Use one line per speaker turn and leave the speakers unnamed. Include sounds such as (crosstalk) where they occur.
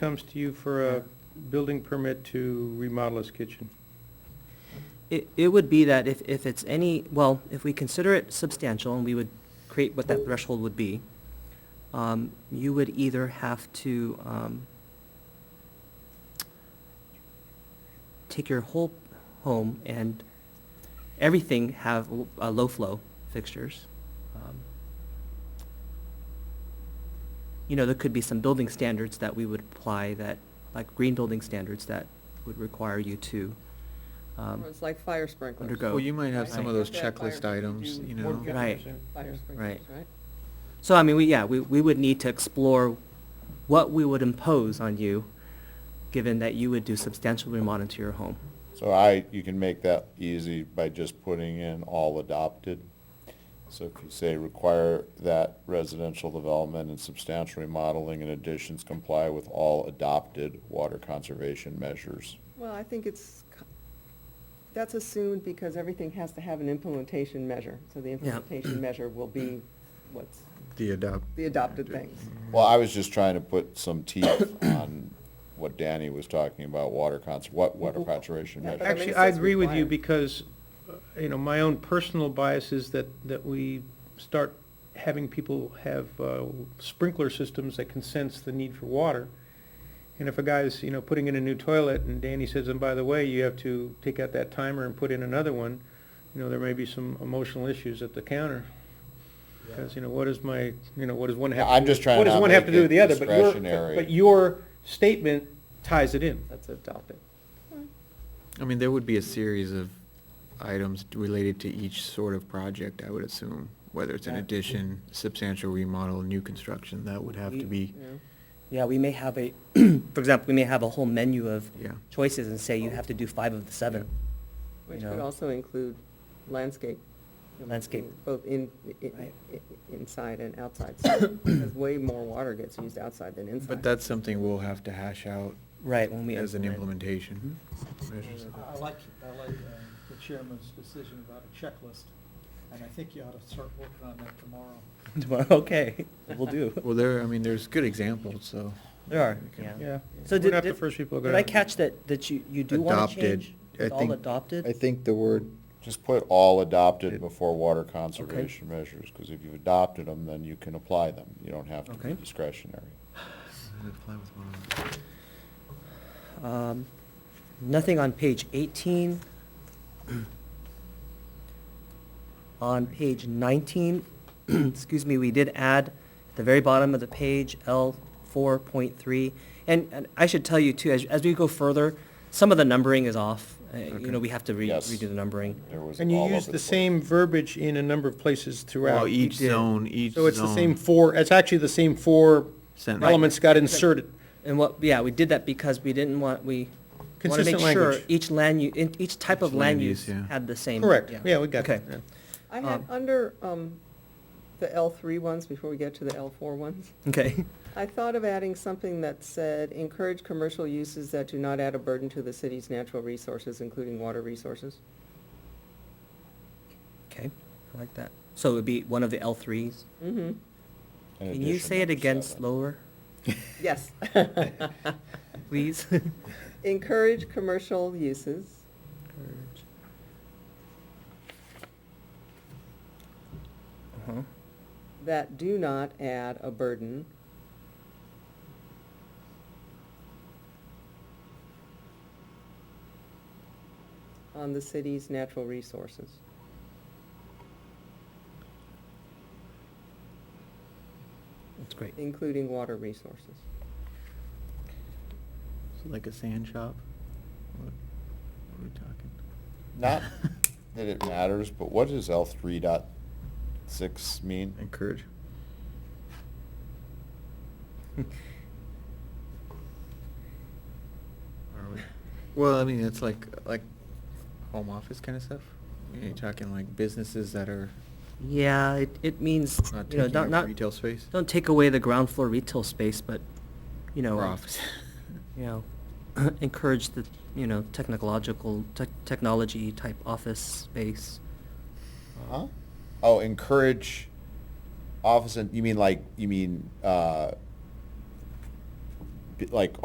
comes to you for a building permit to remodel his kitchen?
It, it would be that if, if it's any, well, if we consider it substantial, and we would create what that threshold would be, um, you would either have to, um, take your whole home and everything have w- uh, low-flow fixtures. Um, You know, there could be some building standards that we would apply that, like green building standards that would require you to, um,
Or It's like fire sprinklers.
undergo.
Well, you might have
Right.
some of those
Look at fire
checklist
to
items,
do
you
Or
know.
get-
Right.
Fire sprinklers,
Right.
right?
So, I mean, we, yeah, we, we would need to explore what we would impose on you, given that you would do substantial remodeling to your home.
So I, you can make that easy by just putting in all adopted. So if you say require that residential development and substantial remodeling and additions comply with all adopted water conservation measures.
Well, I think it's, co- that's assumed because everything has to have an implementation measure. So the implementation measure will be what's
The adopt.
the adopted things.
Mm-hmm.
Well, I was just trying to put some teeth (coughs) on what Danny was talking about, water cons, what water conservation
Mm-hmm. Yeah,
measures.
But I mean,
Actually,
it
I
says
agree with you
required.
because, uh, you know, my own personal bias is that, that we start having people have uh, sprinkler systems that can sense the need for water. And if a guy's, you know, putting in a new toilet and Danny says, and by the way, you have to take out that timer and put in another one, you know, there may be some emotional issues at the counter. Because, you know, what is my, you know, what does one have?
I'm just trying
What
to
does
not
one have to
make
do
it
with the other? But your-
discretionary.
But your statement ties it in.
That's adopted.
I mean, there would be a series of items related to each sort of project, I would assume, whether it's an
Yeah.
addition, substantial remodel, new construction, that would have to be,
you know.
Yeah, we may have a, (clears throat) for example, we may have a whole menu of
yeah.
choices and say you have to do five of the seven.
Which
You
would
know.
also include landscape.
Landscape.
Both in, i-
Right.
i- inside and outside, (coughs) so- because way more water gets used outside than
Mm-hmm.
inside.
But that's something we'll have to hash out
Right, when we.
as an implementation.
Mm-hmm.
measures.
I like, I like uh, the chairman's decision about a checklist, and I think you ought to start working on that tomorrow.
(laughs) Tomorrow, okay, we'll do.
Well, there, I mean, there's good examples, so.
There are,
we can-
yeah.
Yeah.
So
We're
did-
not the
did-
first people to go
Did I
down.
catch that, that you, you do want to
Adopted.
change?
I
It's all
think-
adopted?
I think the word,
Just put all adopted before water conservation measures, because if you've adopted them, then you can apply them. You don't have to be
Okay.
discretionary.
apply with one of them.
Um, Nothing on page 18. (clears throat) On page 19, (clears throat) excuse me, we did add at the very bottom of the page, L 4.3. And and I should tell you too, as as we go further, some of the numbering is off. Uh, You know, we have to re-
Yes.
redo the numbering.
There was
And you
all
use
over
the
place.
same verbiage in a number of places throughout.
Well, each
did.
zone, each zone.
So it's the same four, it's actually the same four
Sentence.
elements got inserted.
And what, yeah, we did that because we didn't want, we want to make
Consistent
sure
language.
each land, u- in- each type
Each
of land
land
use
use, yeah.
had the same.
Correct, yeah, we got
Okay.
that. yeah.
I had,
Um,
under um, the L three ones, before we get to the L four ones,
(laughs) Okay.
I thought of adding something that said, encourage commercial uses that do not add a burden to the city's natural resources, including water resources.
Okay, I like that. So it would be one of the L threes.
Mm-hmm,
In
Can you
addition,
say it
number
again
seven.
slower,
yes. (laughs)
please?
Encourage commercial uses
Uh-huh.
that do not add a burden on the city's natural resources.
(laughs) That's great.
including water resources.
Like a sand shop? What what are we talking?
Not that it matters, but what does L three dot six mean?
(laughs) Encourage. Are we- Well, I mean, it's like, like home office kind of stuff? You're talking like businesses that are
Yeah, it, it means,
not
you know,
taking
not,
up
not,
retail space?
don't take away the ground floor retail space, but, you know. uh,
Or office.
(laughs) You know, (clears throat) encourage the, you know, technological, tech, technology type office space.
Huh? Oh, encourage office, and you mean like, you mean, uh, b- like